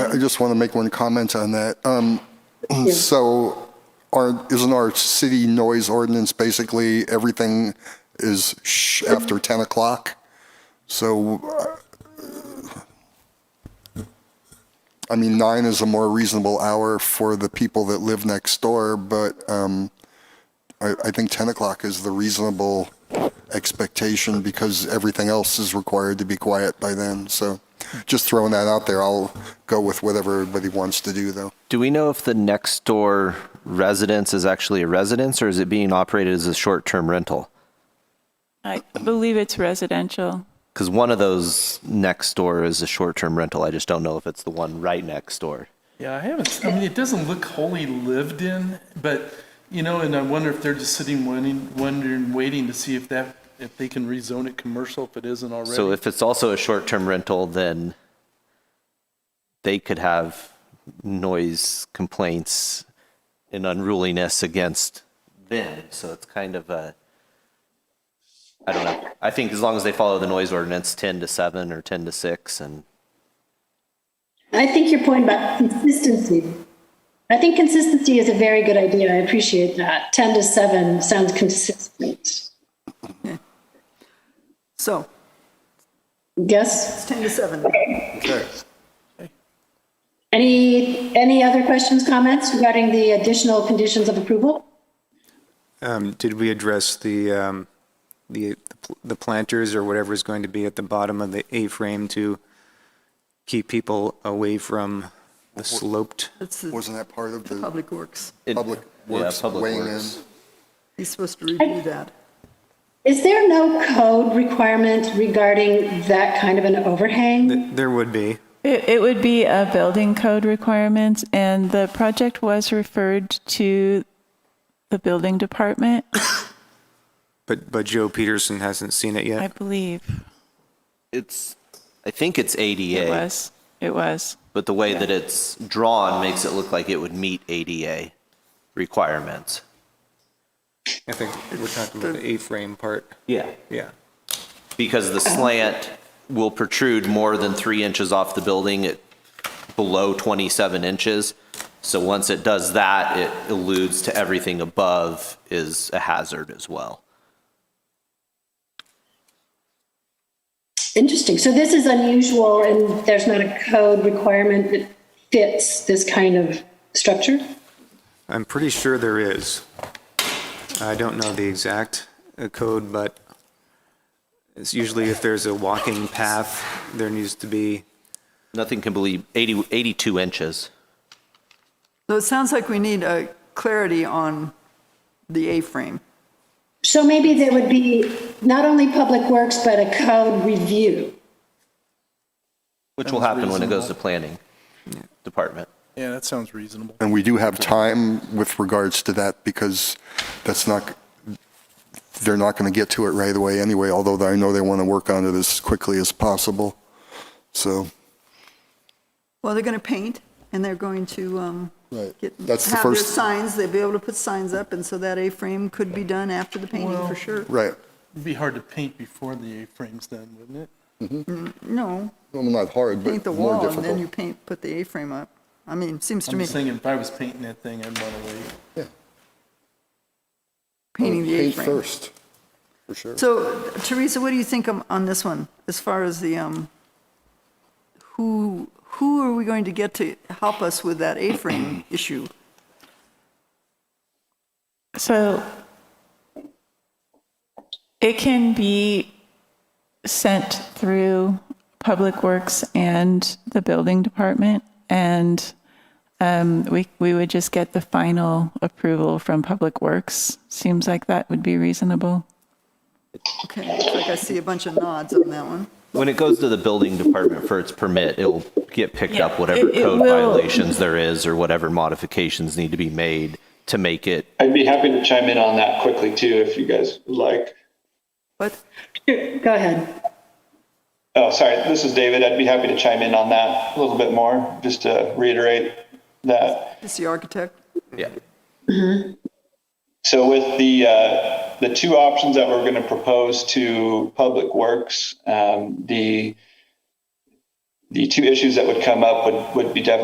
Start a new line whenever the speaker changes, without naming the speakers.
I just want to make one comment on that. Um, So our, isn't our city noise ordinance basically everything is shh after 10 o'clock? So, uh, I mean, nine is a more reasonable hour for the people that live next door, but um, I, I think 10 o'clock is the reasonable expectation because everything else is required to be quiet by then. So just throwing that out there, I'll go with whatever everybody wants to do, though.
Do we know if the next door residence is actually a residence or is it being operated as a short term rental?
I believe it's residential.
Because one of those next door is a short term rental. I just don't know if it's the one right next door.
Yeah, I haven't, I mean, it doesn't look wholly lived in, but, you know, and I wonder if they're just sitting wondering, wondering, waiting to see if that, if they can rezone it commercial if it isn't already.
So if it's also a short term rental, then they could have noise complaints and unruliness against them. So it's kind of a, I don't know. I think as long as they follow the noise ordinance 10 to 7 or 10 to 6 and
I think your point about consistency. I think consistency is a very good idea. I appreciate that. 10 to 7 sounds consistent.
So,
Yes?
it's 10 to 7.
Okay.
Any, any other questions, comments regarding the additional conditions of approval?
Um, Did we address the, um, the, the planters or whatever is going to be at the bottom of the A-frame to keep people away from the sloped?
That's the
Wasn't that part of the
Public Works.
it-
public
yeah,
works
Public
weighing in?
Works.
He's supposed to review that.
Is there no code requirement regarding that kind of an overhang?
There would be.
It, it would be a building code requirement, and the project was referred to the building department,
But, but Joe Peterson hasn't seen it
I
yet.
believe.
It's, I think it's
It
ADA,
was, it was.
but the way that it's drawn makes it look like it would meet ADA requirements.
I think we're talking about the A-frame part.
Yeah.
Yeah.
Because the slant will protrude more than three inches off the building at below 27 inches. So once it does that, it alludes to everything above is a hazard as well.
Interesting. So this is unusual and there's not a code requirement that fits this kind of structure?
I'm pretty sure there is. I don't know the exact uh, code, but it's usually if there's a walking path, there needs to be,
Nothing can believe 80, 82 inches.
So it sounds like we need a clarity on the A-frame.
So maybe there would be not only Public Works, but a code review.
Which will happen when it goes to planning department.
Yeah, that sounds reasonable.
And we do have time with regards to that because that's not, they're not going to get to it right away anyway, although I know they want to work on it as quickly as possible. So.
Well, they're going to paint and they're going to um,
Right.
get-
That's the
have their
first-
signs, they'll be able to put signs up, and so that A-frame could be done after the painting for sure.
Right.
It'd be hard to paint before the A-frame's done, wouldn't it?
No,
Well, not hard,
paint
but
the
more
wall and then you
difficult.
paint, put the A-frame up. I mean, seems to
I'm
me,
just thinking if I was painting that thing, I'd want to wait.
painting the
Uh, Paint
A-frame.
first, for sure.
So Teresa, what do you think on on this one, as far as the, um, who, who are we going to get to help us with that A-frame issue?
So it can be sent through Public Works and the building department, and um, we, we would just get the final approval from Public Works. Seems like that would be reasonable.
Okay, looks like I see a bunch of nods on that one.
When it goes to the building department for its permit, it'll get picked up whatever
It- it
code
will.
violations there is or whatever modifications need to be made to make it
I'd be happy to chime in on that quickly too, if you guys would like.
But
Go ahead.
Oh, sorry, this is David. I'd be happy to chime in on that a little bit more, just to reiterate that.
it's the architect.
yeah.
So with the, uh, the two options that we're going to propose to Public Works, um, the, the two issues that would come up would, would be definitely